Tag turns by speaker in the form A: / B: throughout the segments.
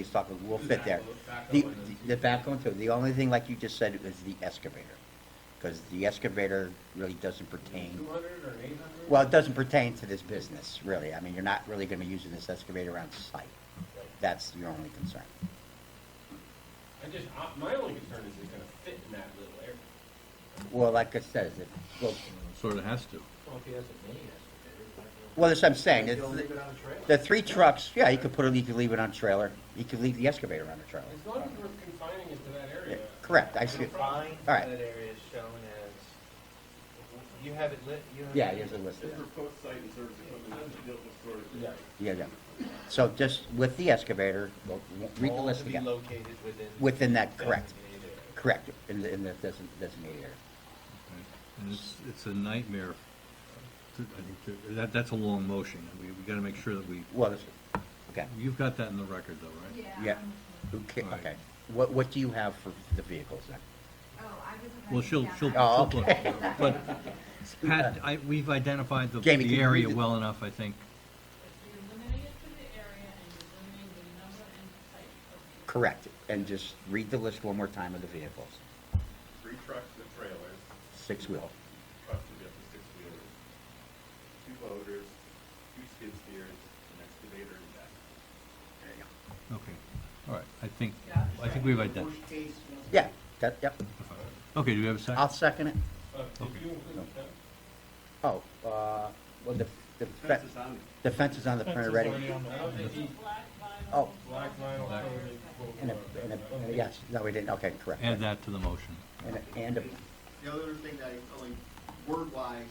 A: he's talking, we'll fit there. The, the back one too, the only thing, like you just said, is the excavator, because the excavator really doesn't pertain,
B: Two hundred or eight hundred?
A: well, it doesn't pertain to this business, really. I mean, you're not really gonna be using this excavator on site. That's your only concern.
B: I just, I- my only concern is it's gonna fit in that little area.
A: Well, like I said, it goes,
C: Sort of has to.
B: Well, if he has a mini excavator, why not?
A: well, that's what I'm saying,
B: He'll
A: it's-
B: leave it on a trailer.
A: the three trucks, yeah, you could put it, you could leave it on a trailer, you could leave the excavator on a trailer.
B: As long as we're confining it to that
A: Yeah,
B: area.
A: Correct, I see,
B: no
A: it.
B: problem.
D: Line
A: All right.
D: that area is shown as, you have it lit, you have.
A: yeah, here's a list of
E: This
A: them.
E: proposed site and service equipment is built with storage.
B: Yeah.
A: Yeah, yeah. So just with the excavator, we'll- we'll read the
D: All
A: list
D: to be
A: again.
D: located within.
A: Within that, correct,
D: designated area.
A: correct, in the, in the design- designated area.
C: And it's, it's a nightmare. to- I think to- That, that's a long motion. We, we gotta make sure that we,
A: Well, this- okay,
C: you've got that in the record though, right?
A: yeah.
F: Yeah. um, I'm-
A: Who ca-
C: All right.
A: okay. What, what do you have for the vehicles then?
F: Oh, I wasn't.
C: Well,
F: writing
C: she'll,
F: down.
C: she'll.
A: Oh,
C: she'll
A: okay.
C: put- But Pat, I, we've identified the,
A: Jamie, can
C: the
A: you
C: area
A: read it?
C: well enough, I think.
G: You're limiting it to the area and you're limiting the number and type of
A: Correct, and just read the list one more time of the vehicles.
E: Three trucks and trailers,
A: Six wheel,
E: trucks would be up to six wheelers, two loaders, two skid steers, an excavator and that.
A: there you go.
C: Okay, all right, I think, I think we've identified.
A: Yeah, that, yep,
C: Okay, do we have a
A: I'll second
C: second?
A: it.
B: Uh, Did you include the fence?
A: Oh, uh, well, the, the
E: Fence
A: fe-
E: is on there.
A: the fence is on the printer ready.
B: I don't think he-
G: black vinyl.
A: Oh.
B: Black vinyl covered it.
A: And a, and a, and a- yes, no, we didn't, okay, correct.
C: Add that to the motion.
A: And a, and a,
H: The other thing that I, only word-wise,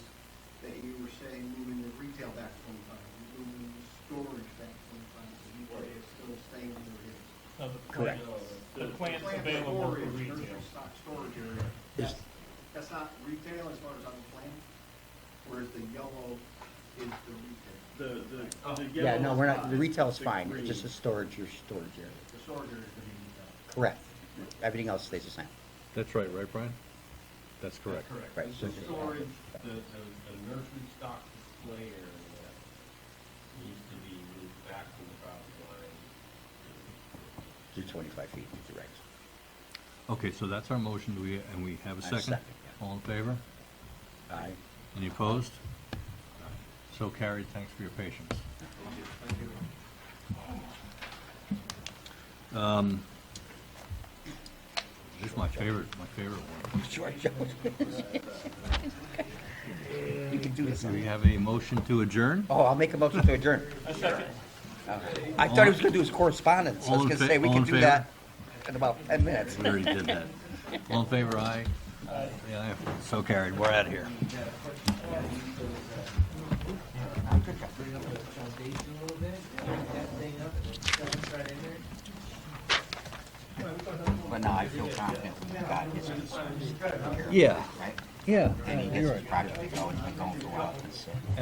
H: that you were saying, moving the retail back twenty-five, moving the storage back twenty-five, so you are still staying where it is.
A: correct.
I: The plant's
H: Plant
I: available for
H: storage,
I: retail.
H: there's your stock storage area.
A: Is-
H: That's, that's not retail as far as on the plan, whereas the yellow is the retail,
E: The, the, the
A: Yeah, no,
E: yellow
A: we're not, the
E: spot,
A: retail is
E: the
A: fine, it's
E: green.
A: just a storage, your storage area.
H: the storage area is the retail.
A: Correct. Everything else stays the same.
C: That's right, right, Brian? That's correct.
A: Right.
B: Correct. The storage, the, the the nursery stock display area needs to be moved back to the property line.
A: Do twenty-five feet, is the regs.
C: Okay, so that's our motion, do we, and we have a
A: I
C: second?
A: second, yeah.
C: All in favor?
A: Aye.
C: Any opposed? So carried, thanks for your patience. Um, This is my favorite, my favorite one.
A: Sure, Joe. You can do this.
C: Do we have a motion to adjourn?
A: Oh, I'll make a motion to adjourn. Uh, I thought he was gonna do his correspondence. I
C: All
A: was
C: in
A: gonna
C: fa-
A: say, we
C: all
A: can
C: in
A: do
C: favor?
A: that in about ten minutes.
C: We already did that. All in favor, aye? Yeah, so carried, we're out of here.
D: Bring up the foundation a little bit, crank that thing up, and then shove it right in there.
A: But no, I feel confident we've got this concern,
C: Yeah,
A: right?
C: yeah.
A: They need this project to go, it's been going for a while, it's, uh,